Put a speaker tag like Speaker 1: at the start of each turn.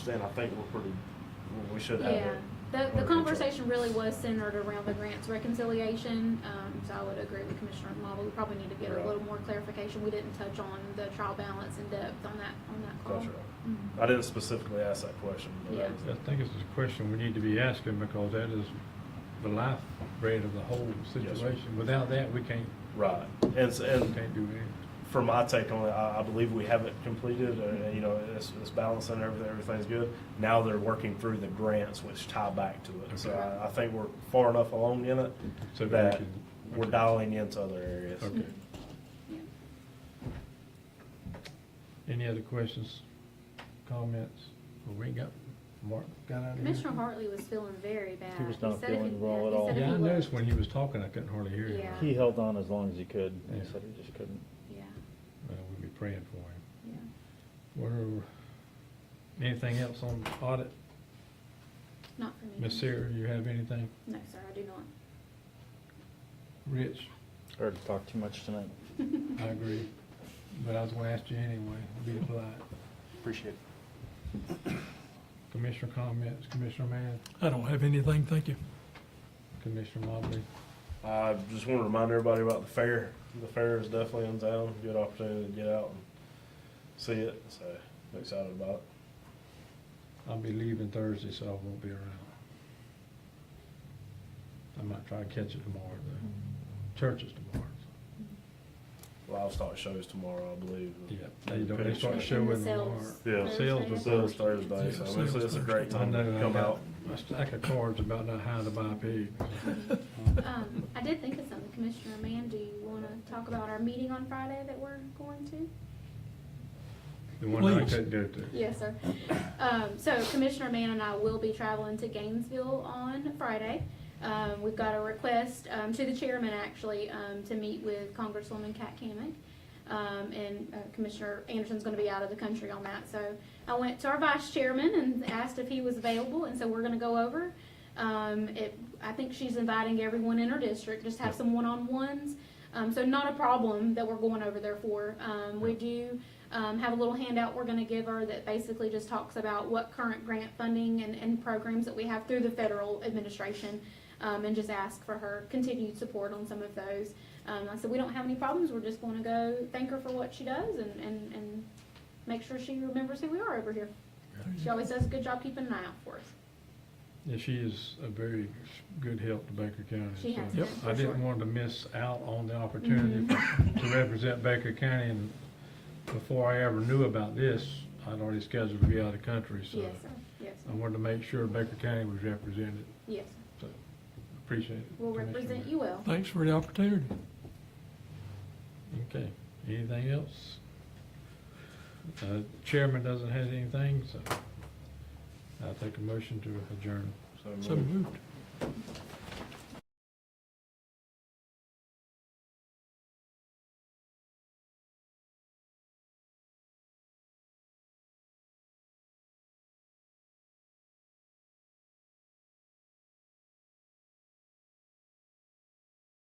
Speaker 1: then I think we're pretty, we should have
Speaker 2: Yeah,
Speaker 1: it.
Speaker 2: the,
Speaker 1: under
Speaker 2: the
Speaker 1: control.
Speaker 2: conversation really was centered around the grants reconciliation, um, so I would agree with Commissioner Marvel, we probably need to get a
Speaker 1: Right.
Speaker 2: little more clarification, we didn't touch on the trial balance in depth on that, on that call.
Speaker 1: That's right.
Speaker 2: Mhm.
Speaker 1: I didn't specifically ask that question, but
Speaker 2: Yeah.
Speaker 1: that was
Speaker 3: I
Speaker 1: it.
Speaker 3: think it's a question we need to be asking because that is the lifeblood of the whole
Speaker 1: Yes, sir.
Speaker 3: situation. Without that, we can't,
Speaker 1: Right. And, s- and
Speaker 3: can't do anything.
Speaker 1: from my take on it, I, I believe we have it completed, uh, you know, it's, it's balanced and everything, everything's good. Now they're working through the grants which tie back to it. So
Speaker 3: Okay.
Speaker 1: I, I think we're far enough along in it
Speaker 3: So we
Speaker 1: that
Speaker 3: can-
Speaker 1: we're
Speaker 3: okay.
Speaker 1: dialing into other areas.
Speaker 3: Okay.
Speaker 2: Yeah.
Speaker 3: Any other questions, comments? Well, we got, Mark got out of here?
Speaker 2: Commissioner Hartley was feeling very bad.
Speaker 4: He was not
Speaker 2: said if
Speaker 4: feeling
Speaker 2: he-
Speaker 4: well
Speaker 2: yeah,
Speaker 4: at
Speaker 2: he
Speaker 4: all.
Speaker 2: said if
Speaker 3: Yeah,
Speaker 2: he
Speaker 3: I noticed
Speaker 2: looked-
Speaker 3: when he was talking, I couldn't hardly hear him.
Speaker 2: Yeah.
Speaker 4: He held on as long as he could. and
Speaker 3: Yeah.
Speaker 4: He said he just couldn't.
Speaker 2: Yeah,
Speaker 3: Well, we'd be praying for him.
Speaker 2: yeah.
Speaker 3: Where, anything else on audit?
Speaker 2: Not for me.
Speaker 3: Miss Sarah, you have anything?
Speaker 2: No, sir, I do not.
Speaker 3: Rich?
Speaker 4: Heard to talk too much tonight.
Speaker 3: I agree, but I was gonna ask you anyway, be polite.
Speaker 1: Appreciate it.
Speaker 3: Commissioner comments, Commissioner Mann,
Speaker 5: I don't have anything, thank you.
Speaker 3: Commissioner Mobley.
Speaker 1: I just want to remind everybody about the fair. The fair is definitely in town. Good opportunity to get out and see it. So I'm excited about it.
Speaker 3: I'll be leaving Thursday, so I won't be around. I might try to catch it tomorrow, though. Church is tomorrow. so-
Speaker 1: Livestock shows tomorrow, I believe.
Speaker 3: Yeah, they don't, they
Speaker 2: And
Speaker 3: start
Speaker 2: the
Speaker 3: showing tomorrow.
Speaker 2: sales
Speaker 1: Yeah.
Speaker 2: Thursday, I
Speaker 3: Sales was
Speaker 1: Sales
Speaker 2: think.
Speaker 1: Thursday, so it's, it's a great
Speaker 3: I
Speaker 1: time to
Speaker 3: know, I
Speaker 1: come
Speaker 3: got,
Speaker 1: out.
Speaker 3: my stack of cards about not how to buy pigs.
Speaker 2: Um, I did think of something, Commissioner Mann, do you wanna talk about our meeting on Friday that we're going to?
Speaker 3: The one that I
Speaker 5: Please.
Speaker 3: couldn't go to.
Speaker 2: Yes, sir. Um, so Commissioner Mann and I will be traveling to Gainesville on Friday. Um, we've got a request, um, to the chairman actually, um, to meet with Congresswoman Kat Kamick. Um, and uh, Commissioner Anderson's gonna be out of the country on that, so I went to our vice chairman and asked if he was available, and so we're gonna go over. Um, it, I think she's inviting everyone in her district, just have some one-on-ones. Um, so not a problem that we're going over there for. Um, we do, um, have a little handout we're gonna give her that basically just talks about what current grant funding and, and programs that we have through the federal administration, um, and just ask for her continued support on some of those. Um, I said, we don't have any problems, we're just gonna go thank her for what she does and, and, and make sure she remembers who we are over here. She always does a good job keeping an eye out for us.
Speaker 3: Yeah, she is a very good help to Baker County.
Speaker 2: She
Speaker 3: so
Speaker 2: has been, Yep. for
Speaker 3: I didn't
Speaker 2: sure.
Speaker 3: want to miss out on the opportunity
Speaker 2: Mm-hmm.
Speaker 3: to represent Baker County, and before I ever knew about this, I'd already scheduled to be out of the country, so
Speaker 2: Yes, sir, yes,
Speaker 3: I
Speaker 2: sir.
Speaker 3: wanted to make sure Baker County was represented,
Speaker 2: yes. sir.
Speaker 3: so appreciate it.
Speaker 2: We'll
Speaker 3: Commissioner.
Speaker 2: represent you well.
Speaker 5: Thanks for the opportunity.
Speaker 3: Okay, anything else? Uh, Chairman doesn't have anything, so I'll take a motion to adjourn.
Speaker 1: So
Speaker 5: So moved.